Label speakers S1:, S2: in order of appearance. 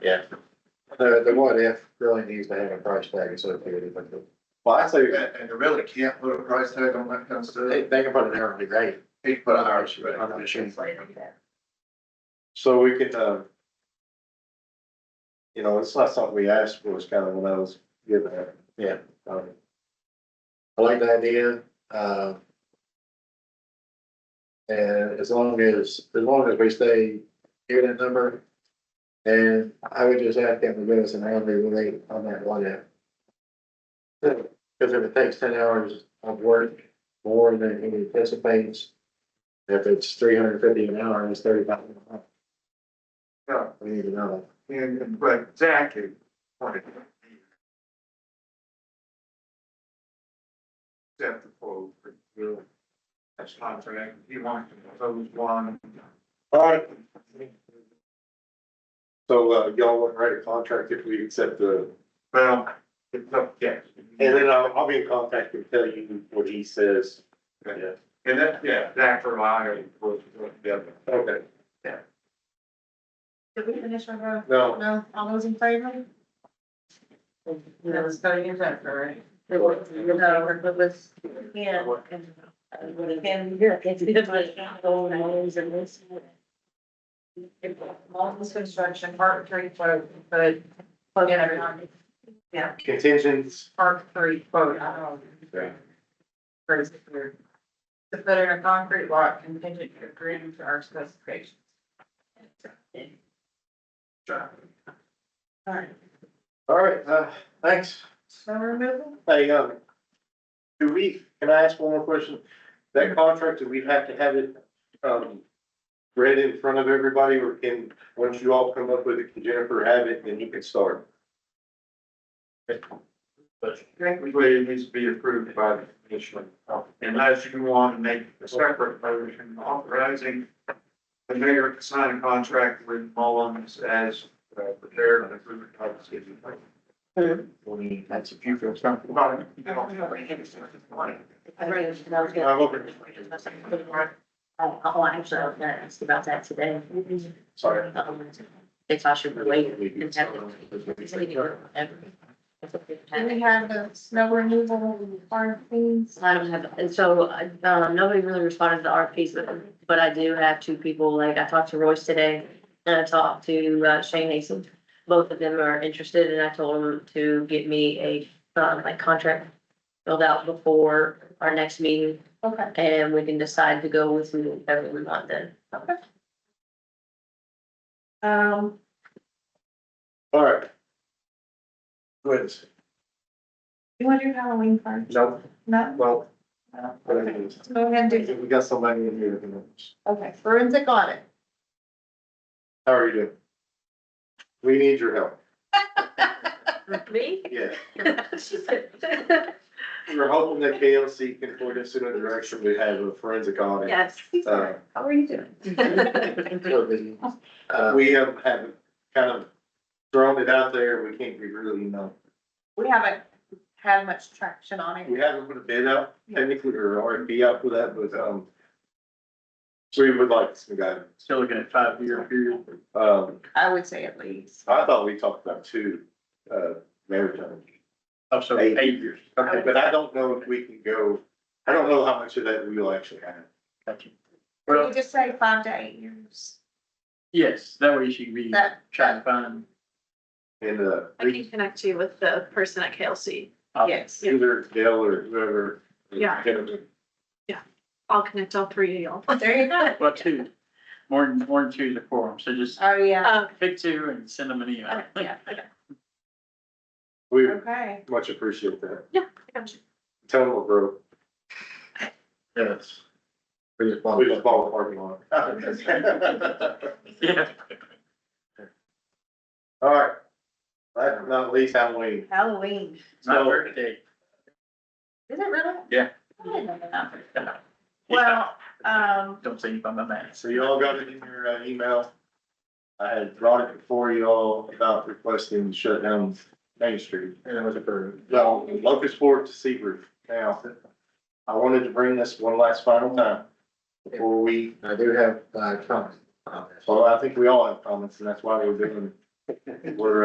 S1: Yeah.
S2: The, the what if really needs to have a price tag associated with it.
S3: Well, I say, and, and you really can't put a price tag on that kind of stuff.
S2: They, they can put an hourly rate
S3: They put an hourly rate.
S2: on the machine.
S1: So we can, um. You know, it's not something we asked for, it's kind of when I was given it.
S2: Yeah.
S1: Um,
S2: I like the idea, uh. And as long as, as long as we stay near that number. And I would just ask them to give us an hourly rate on that one if. Cause if it takes ten hours of work more than he anticipates. If it's three hundred fifty an hour and it's thirty five.
S3: Yeah.
S2: We need to know.
S3: And, and, but exactly. Except for, for, that's contract, he wants to propose one.
S1: All right. So, uh, y'all want to write a contract if we accept the,
S3: Well, it's up, yes.
S1: and then I'll, I'll be in contact and tell you what he says.
S3: And that, yeah, that for uh, liar was, was the other.
S1: Okay.
S4: Did we finish our, uh,
S1: No,
S4: no, all those in favor? That was cutting it up, right? No, but let's. Yeah. Can, yeah, it's different, going always and this. If all this construction, part three, quote, but. Plug in everyone,
S1: contingents,
S4: part three, quote, I don't know. Crazy here. To put in a concrete lot contingent to agreeing to our specifications. All right,
S1: all right, uh, thanks.
S4: so removal?
S1: Hey, um, do we, can I ask one more question? That contract, do we have to have it, um, read in front of everybody or can, once you all come up with it, can Jennifer have it and you can start?
S3: Technically, it needs to be approved by the commission, unless you want to make a separate motion authorizing the mayor to sign a contract with Mullins as uh, prepared and approved by the city.
S2: That's if you feel comfortable.
S3: Well, I don't have any hands on this one.
S5: I really, I was
S1: I'm open.
S5: gonna. Oh, actually, I was gonna ask about that today.
S1: Sorry.
S5: Um, If I should relate and have it.
S4: Do we have the snow removal and farm things?
S5: I don't have, and so, I- um, nobody really responded to the RFPs, but, but I do have two people, like, I talked to Royce today, and I talked to uh, Shane Mason. Both of them are interested, and I told them to get me a, um, like, contract filled out before our next meeting,
S4: Okay,
S5: and we can decide to go with whoever we want then.
S4: um,
S1: All right.
S2: Good.
S4: you want to do Halloween party?
S2: No,
S4: No?
S2: well,
S4: Okay, let's Go ahead and do,
S2: we got somebody in here. who knows.
S4: okay, forensic audit.
S1: How are you doing? We need your help.
S5: Me?
S1: Yeah,
S5: She said,
S1: we were hoping that KLC can point us in a direction we have a forensic audit.
S5: Yes.
S1: Uh,
S4: How are you doing?
S2: So busy. Uh,
S1: we have, have kind of thrown it out there. We can't be really, know.
S4: We haven't had much traction on it.
S1: We haven't put a bid out technically or RFP out for that, but, um, we would like some guidance.
S3: Still looking at five year period.
S1: Um,
S4: I would say at least.
S1: I thought we talked about two, uh, maritime.
S3: Oh, so
S1: eight
S3: years.
S1: Okay, but I don't know if we can go, I don't know how much of that we'll actually have.
S4: Would you just say five to eight years?
S3: yes, that way she can be
S4: That,
S3: to find
S1: And, uh,
S6: I can connect you with the person at KLC.
S4: yes,
S1: either Dale or whoever.
S6: Yeah. I'll connect all three of y'all.
S4: Oh, there you go.
S7: Well, two, more than, more than two is a quorum, so just
S4: Oh, yeah,
S6: Oh,
S7: pick two and send them an email.
S6: okay, yeah, okay.
S1: We
S4: okay.
S1: much appreciate that.
S6: I got you.
S1: Tell them we're broke.
S2: Yes. We just bought.
S1: We just bought a parking lot.
S7: Yeah.
S1: All right. Last but not least, Halloween.
S4: Halloween.
S7: My
S1: So-
S7: birthday.
S4: Is it really?
S7: Yeah.
S4: I didn't know that.
S7: Yeah,
S4: Well, um,
S7: Don't say you by my mask.
S1: So you all got it in your uh, email. I had brought it before you all about requesting to shut down Main Street.
S2: And it was approved.
S1: Well, Locust Fork to Seabroof. Now, I wanted to bring this one last final time before we,
S2: I do have, uh, comments on this.
S1: well, I think we all have comments and that's why we're doing We're uh,